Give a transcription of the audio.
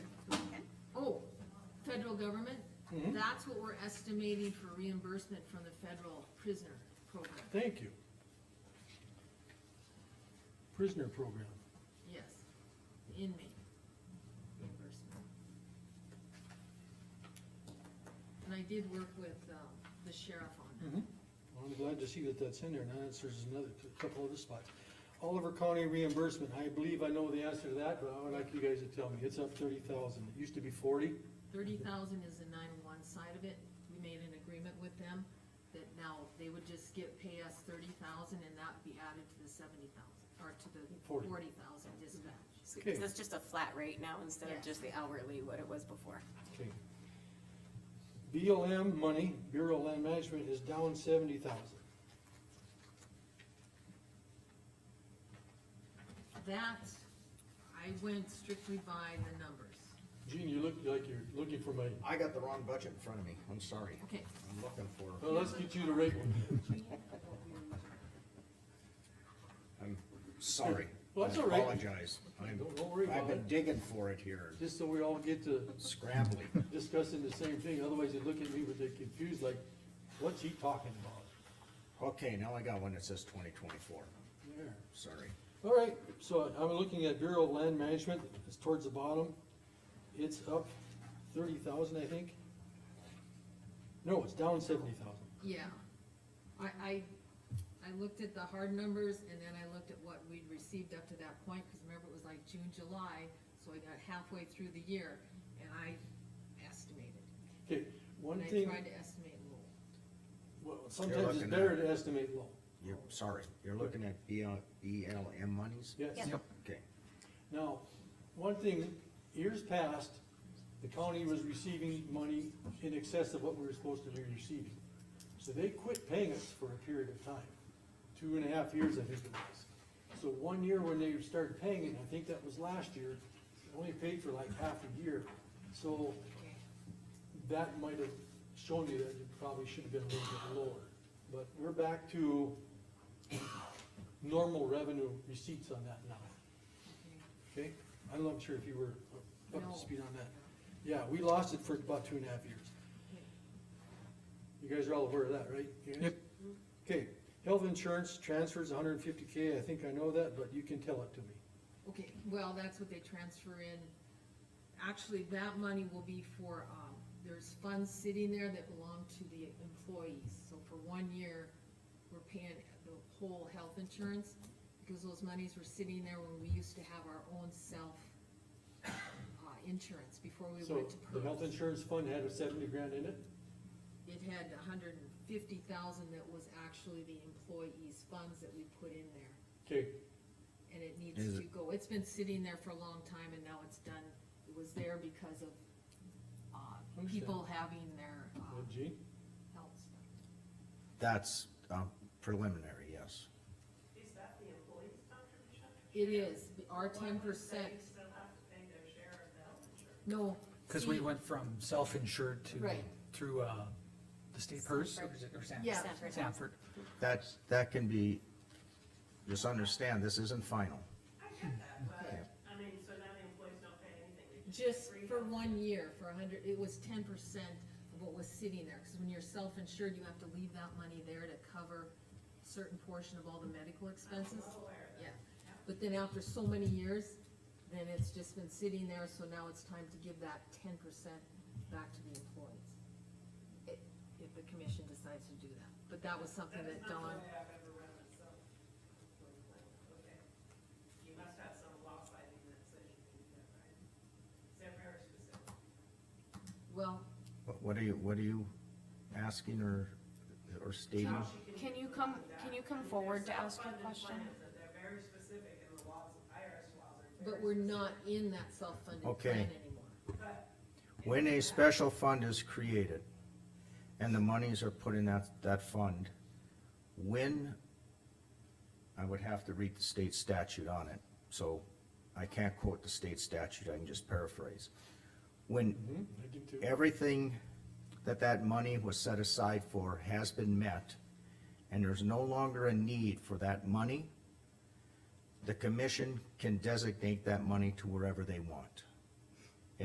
Oh, federal government, Mhm. that's what we're estimating for reimbursement from the federal prisoner program, Thank you. Prisoner program. yes, inmate reimbursement. And I did work with, um, the sheriff on that. Well, I'm glad to see that that's in there, now that's, there's another, a couple other spots. Oliver County reimbursement, I believe I know the answer to that, but I would like you guys to tell me, it's up thirty thousand, it used to be forty? Thirty thousand is the nine-one side of it, we made an agreement with them that now they would just get, pay us thirty thousand and that would be added to the seventy thousand, or to the Forty. forty thousand dispatch. So Okay. that's just a flat rate now instead Yeah. of just the hourly, what it was before. Okay. BLM money, Bureau of Land Management, is down seventy thousand. That, I went strictly by the numbers. Gene, you look like you're looking for money, I got the wrong budget in front of me, I'm sorry. Okay, I'm looking for, well, let's get you the right one. I'm sorry. Well, that's I all right. Apologize. I'm, Don't, don't worry I've about been it, digging for it here, just so we all get to scrambling. discussing the same thing, otherwise they look at me with they confused, like, what's he talking about? Okay, now I got one that says twenty twenty-four, There. sorry. All right, so I'm looking at Bureau of Land Management, it's towards the bottom. It's up thirty thousand, I think. No, it's down seventy thousand. yeah. I, I, I looked at the hard numbers and then I looked at what we'd received up to that point, cause remember it was like June, July, so I got halfway through the year and I estimated. Okay, one And I thing, tried to estimate low. well, sometimes it's looking better at- to estimate low, You're, sorry, you're looking at E BL, BLM monies? yes. Yeah. Yep. Okay, Now, one thing, years past, the county was receiving money in excess of what we were supposed to be receiving. So they quit paying us for a period of time, two and a half years, I think it was. So one year when they started paying, and I think that was last year, they only paid for like half a year. So Okay. that might have shown you that it probably should have been a little bit lower. But we're back to normal revenue receipts on that now. Okay, I'm not sure if you were up No. to speed on that. Yeah, we lost it for about two and a half years. You guys are all aware of that, right? You guys? Yep. Okay, health insurance transfers hundred and fifty K, I think I know that, but you can tell it to me. Okay, well, that's what they transfer in. Actually, that money will be for, um, there's funds sitting there that belong to the employees. So for one year, we're paying the whole health insurance because those monies were sitting there when we used to have our own self, uh, insurance before we So went to PERS. the health insurance fund had a seventy grand in it? It had a hundred and fifty thousand that was actually the employees' funds that we put in there. Okay, and it Is needs to go, it's been sitting there for a long time and now it's done, it was there because of, uh, Understand. people having their, uh, well, Gene, health stuff. that's, um, preliminary, yes. Is that the employee's contribution? It is, our ten They percent, still have to pay their share of the health insurance. no. Cause we see, went from self-insured to, Right. through, uh, the state purse or is it- or Sanford? Yeah. Sanford. Sanford. That's, that can be, just understand, this isn't final. I get that, Yeah. but, I mean, so now the employees don't pay anything, they just. Just free for health. one year, for a hundred, it was ten percent of what was sitting there, cause when you're self-insured, you have to leave that money there to cover certain portion of all the medical expenses. I'm aware of that. Yeah, but then after so many years, then it's just been sitting there, so now it's time to give that ten percent back to the employees. i- If the commission decides to do that, but that was something That is that not Dawn, the way I've ever run myself. Okay. You must have some law citing that says you can do that, right? Is that very specific? well, What- What are you, what are you asking or, or stating? How she Can you do come- that. can you come I mean, forward there's to ask your self-funded question? plans that They're very specific and the laws, IRS laws are very. but we're not in that self-funded Okay. plan anymore. But When a special fund is created and the monies are put in that, that fund, when, I would have to read the state statute on it, so I can't quote the state statute, I can just paraphrase. When I do too. everything that that money was set aside for has been met and there's no longer a need for that money, the commission can designate that money to wherever they want.